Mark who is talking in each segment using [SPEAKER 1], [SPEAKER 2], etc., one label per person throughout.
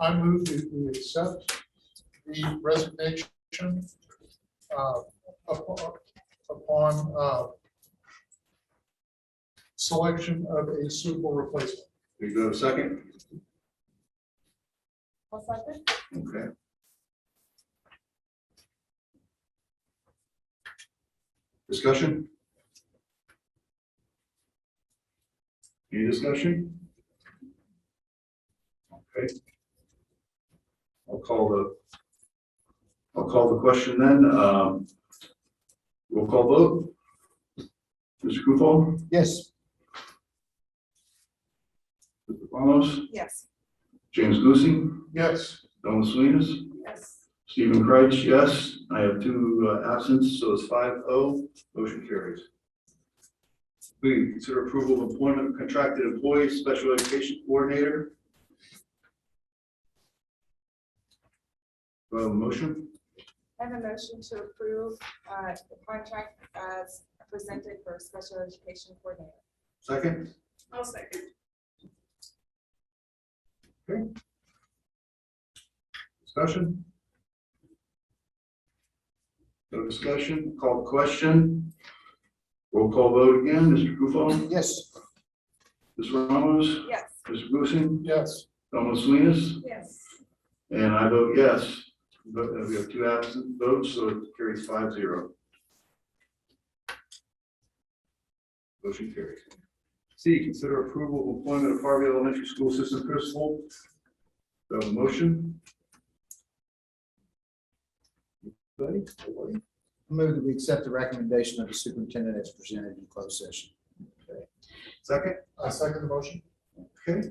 [SPEAKER 1] I move that we accept the resignation uh, upon upon, uh, selection of a suitable replacement.
[SPEAKER 2] We go second,
[SPEAKER 3] I'll second.
[SPEAKER 2] okay. Discussion? Any discussion? Okay. I'll call the, I'll call the question then, um, roll call vote. Mr. Kufal,
[SPEAKER 1] Yes.
[SPEAKER 2] Mr. Ramos,
[SPEAKER 3] Yes.
[SPEAKER 2] James Lucy,
[SPEAKER 1] Yes.
[SPEAKER 2] Donna Salinas,
[SPEAKER 3] Yes.
[SPEAKER 2] Stephen Kreitz, yes. I have two uh, absence, so it's five oh. Motion carries. We consider approval of employment of contracted employees, special education coordinator. Do I have a motion?
[SPEAKER 3] I have a motion to approve uh, the contract as presented for special education coordinator.
[SPEAKER 2] Second?
[SPEAKER 3] I'll second.
[SPEAKER 2] Discussion? No discussion? Call the question. Roll call vote again. Mr. Gufon?
[SPEAKER 1] Yes.
[SPEAKER 2] Ms. Ramos?
[SPEAKER 3] Yes.
[SPEAKER 2] Mr. Boosin?
[SPEAKER 1] Yes.
[SPEAKER 2] Donna Salinas?
[SPEAKER 3] Yes.
[SPEAKER 2] And I vote yes. But uh, we have two absent votes, so it carries five zero. Motion carries. C, consider approval of employment of Harvey Elementary School System Principal. Do I have a motion? Anybody? Nobody?
[SPEAKER 4] Move that we accept the recommendation of the superintendent as presented in closed session.
[SPEAKER 2] Second,
[SPEAKER 1] I second the motion.
[SPEAKER 2] okay.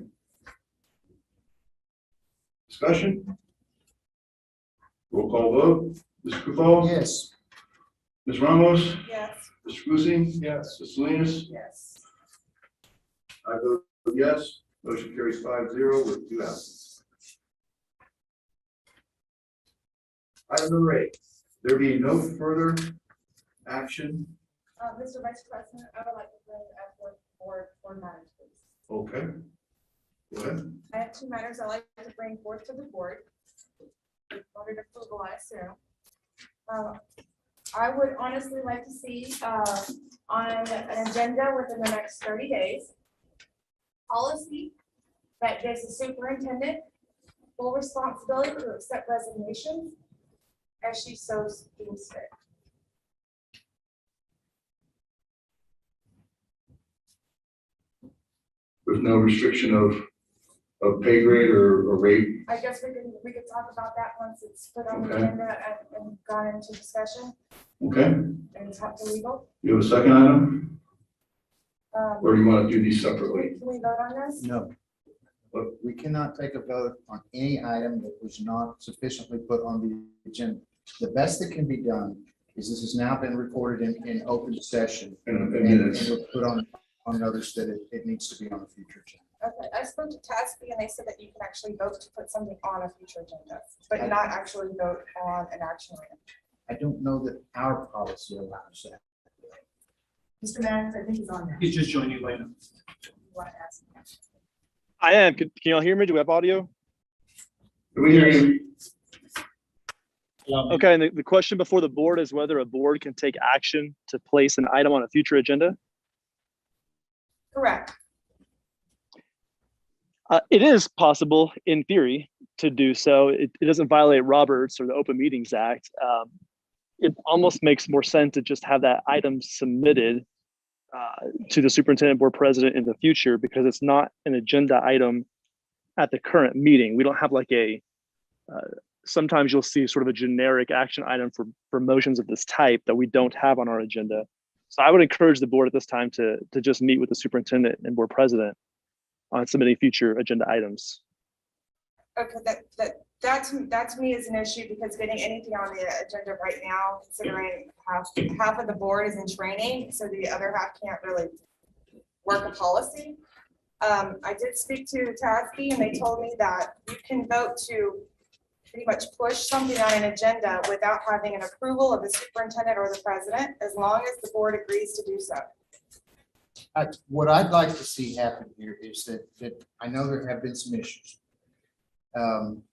[SPEAKER 2] Discussion? Roll call vote. Mr. Duval?
[SPEAKER 4] Yes.
[SPEAKER 2] Ms. Ramos?
[SPEAKER 3] Yes.
[SPEAKER 2] Mr. Boosie?
[SPEAKER 1] Yes.
[SPEAKER 2] Mr. Salinas?
[SPEAKER 3] Yes.
[SPEAKER 2] I vote yes, motion carries five zero with two absences. Item number eight, there being no further action,
[SPEAKER 3] Uh, Mr. Vice President, I would like to bring up one board, board matters, please.
[SPEAKER 2] okay. Go ahead.
[SPEAKER 3] I have two matters I'd like to bring forth to the board. in Order to approval, I assume. Uh, I would honestly like to see uh, on an agenda within the next thirty days. Policy that gives the superintendent full responsibility to accept resignations as she so deems fit.
[SPEAKER 2] There's no restriction of, of pay grade or, or rate,
[SPEAKER 3] I guess we can, we could talk about that once it's put on the
[SPEAKER 2] Okay.
[SPEAKER 3] agenda and- and gone into discussion
[SPEAKER 2] okay?
[SPEAKER 3] and talk to legal.
[SPEAKER 2] You have a second item,
[SPEAKER 3] Um,
[SPEAKER 2] or do you want to do these
[SPEAKER 3] Can
[SPEAKER 2] separately?
[SPEAKER 3] we vote on this?
[SPEAKER 4] No. But We cannot take a vote on any item that was not sufficiently put on the agenda. The best that can be done is this has now been recorded in, in open session.
[SPEAKER 2] In a
[SPEAKER 4] And and
[SPEAKER 2] minute,
[SPEAKER 4] we'll put on, on notice that it, it needs to be on a future agenda.
[SPEAKER 3] Okay, I spoke to Tasby and they said that you can actually vote to put something on a future agenda, but not actually vote on an action item.
[SPEAKER 4] I don't know that our policy allows that.
[SPEAKER 3] Mr. Madden, I think he's on
[SPEAKER 5] He's just joining you later.
[SPEAKER 3] that.
[SPEAKER 6] I am. Can, can y'all hear me? Do we have audio?
[SPEAKER 2] Can we hear you?
[SPEAKER 6] Okay, and the, the question before the board is whether a board can take action to place an item on a future agenda.
[SPEAKER 3] Correct.
[SPEAKER 6] Uh, it is possible, in theory, to do so. It, it doesn't violate Roberts or the Open Meetings Act. Um, it almost makes more sense to just have that item submitted uh, to the superintendent board president in the future because it's not an agenda item at the current meeting. We don't have like a, uh, sometimes you'll see sort of a generic action item for, for motions of this type that we don't have on our agenda. So I would encourage the board at this time to, to just meet with the superintendent and board president on submitting future agenda items.
[SPEAKER 3] Okay, that, that, that to, that to me is an issue because getting anything on the agenda right now, considering half, half of the board is in training, so the other half can't really work a policy. Um, I did speak to Tasby and they told me that you can vote to pretty much push something on an agenda without having an approval of the superintendent or the president, as long as the board agrees to do so.
[SPEAKER 4] I- What I'd like to see happen here is that, that I know there have been some issues. Um,